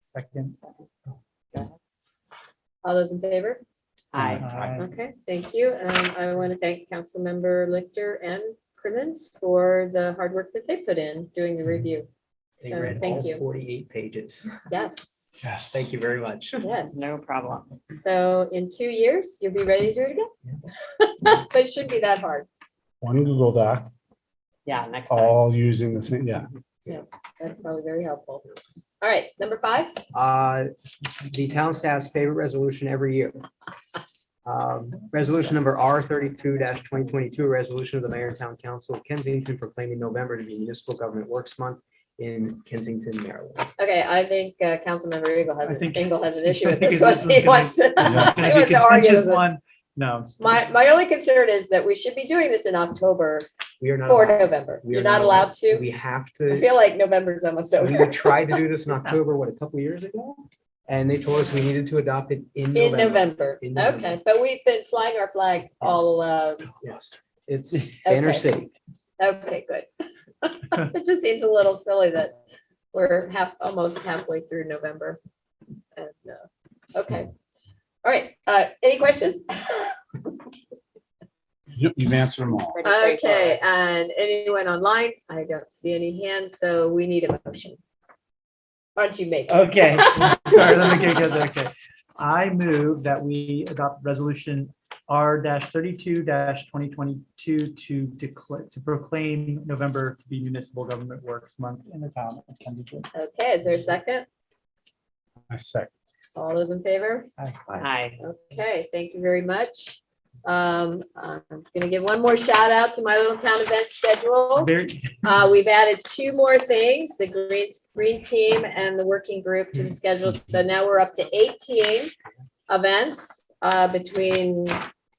Second. All those in favor? Aye. Aye. Okay, thank you. Um, I want to thank Councilmember Lichter and Crimmins for the hard work that they put in doing the review. They So, read all thank you. forty-eight pages. Yes, Yes. Thank you very much. yes. No problem. So in two years, you'll be ready to do it again. But it shouldn't be that hard. One Google Doc, Yeah, next time. all using the same, yeah. That's probably very helpful. All right, number five. Uh, the town staff's favorite resolution every year. Um, Resolution number R thirty-two twenty twenty-two, resolution of the mayor and town council of Kensington proclaiming November to be municipal government works month in Kensington, Maryland. Okay, I think uh, Councilmember Eagle has, I think- Eagle has an issue I with think this this one. is He gonna- wants to. Is that he gonna be wants to argue consensus with it. one? No. My, my only concern is that we should be doing this in October We are not. for allowed- November. we are You're not allowed to. We have I to, feel like November's almost we over. tried to do this in October, what, a couple years ago? And they told us we needed to adopt it in In November. November. In November. Okay, but we've been flying our flag all, uh, Yes, it's Banner Okay. City. okay, good. It just seems a little silly that we're half, almost halfway through November. And, uh, okay. All right, uh, any questions? You- You've answered them all. Pretty Okay, straightforward. and anyone online? I don't see any hands, so we need a motion. Why don't you make? it? Uh, Okay, sorry, let me get good, okay. I move that we adopt resolution R thirty-two twenty twenty-two to declare, to proclaim November to be Municipal Government Works Month in the town of Kensington. Okay, is there a second? I second. All those in favor? Aye. Okay, thank you very much. Um, I'm gonna give one more shout out to my little town event schedule. Very, Uh, we've added two more things, the green, green team and the working group to the schedule. So now we're up to eighteen events uh, between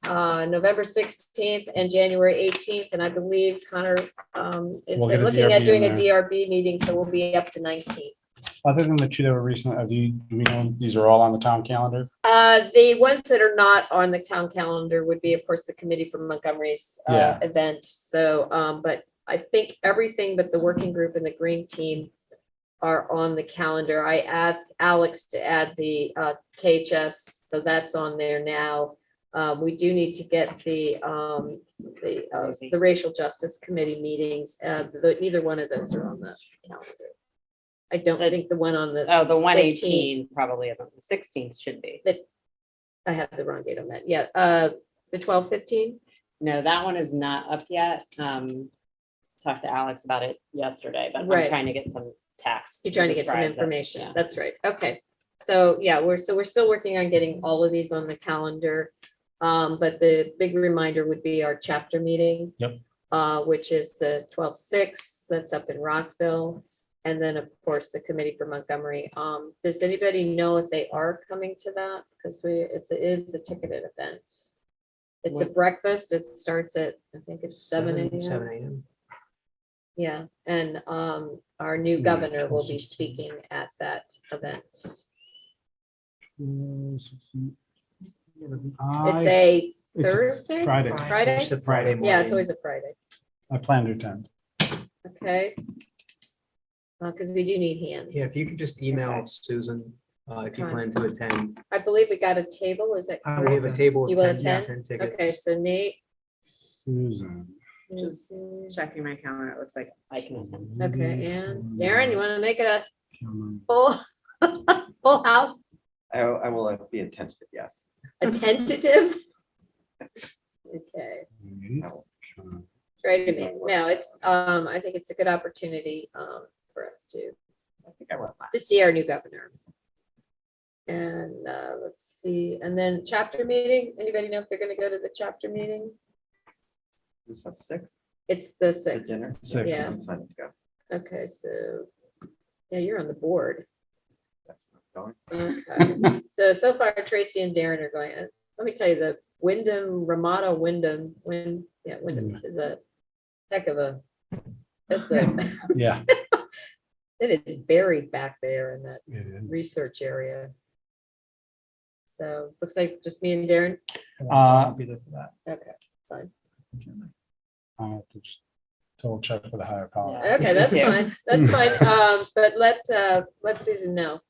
uh, November sixteenth and January eighteenth. And I believe Connor um, is We'll get a looking at DRB in doing a there. DRB meeting, so we'll be up to nineteen. Other than the two that were recent, are the, do we know, these are all on the town calendar? Uh, the ones that are not on the town calendar would be, of course, the committee from Montgomery's uh, Yeah. event. So, um, but I think everything but the working group and the green team are on the calendar. I asked Alex to add the uh, KHS, so that's on there now. Uh, We do need to get the, um, the, uh, the racial justice committee meetings. Uh, the- Neither one of those are on the calendar. I don't think the one on the Oh, the one eighteen probably isn't. The sixteenth should be. I have the wrong date on that. Yeah, uh, the twelve fifteen. No, that one is not up yet. Um, talked to Alex about it yesterday, but Right. I'm trying to get some text. You're trying to get some describes it. information. Yeah. That's right. Okay. So, yeah, we're, so we're still working on getting all of these on the calendar. Um, but the big reminder would be our chapter meeting. Yep. Uh, which is the 12-6. that's up in Rockville. And then, of course, the committee for Montgomery. Um, does anybody know if they are coming to that? Because we, it's, it is a ticketed event. It's a What- breakfast. It starts at, I think it's seven AM. Seven AM. Yeah, and um, our new Yeah, governor will be 12:16. speaking at that event. It's I- a, it's a Thursday? Friday. Friday? It's a Friday morning. yeah, it's always a Friday, I plan to attend. okay? Because we do need hands. Yeah, if you could just email Okay. Susan, uh, if you plan Fine. to attend. I believe we got a table, is it? I We have a table You of will 10 attend? 10 Okay, tickets. so Nate. Susan. Just Checking my calendar, it looks like I can attend. Okay, and Darren, you want to make it a Cameron. full, full house, I, I will uh, be attentive, yes. a tentative? Okay. Cameron. Try to make, no, it's, um, I think it's a good opportunity, um, for us to. I think I went last. To see our new governor. And, uh, let's see, and then chapter meeting, anybody know if they're gonna go to the chapter meeting? Is that six? It's the for sixth, dinner? Six. Yeah. I'm planning to go. okay, so, yeah, you're on the board. That's where I'm Okay. So, so far Tracy and Darren are going, Uh, let me tell you, the Wyndham, Ramada Wyndham, Win, yeah, Wyndham is a heck of a, that's a, Yeah. it is buried back there in that it is. research area. So looks like just me and Darren. I'll be there for that. Okay, I have to just Double check with the higher power. Yeah. okay, that's Yeah. fine. That's fine. Um, but let, uh, let Susan know.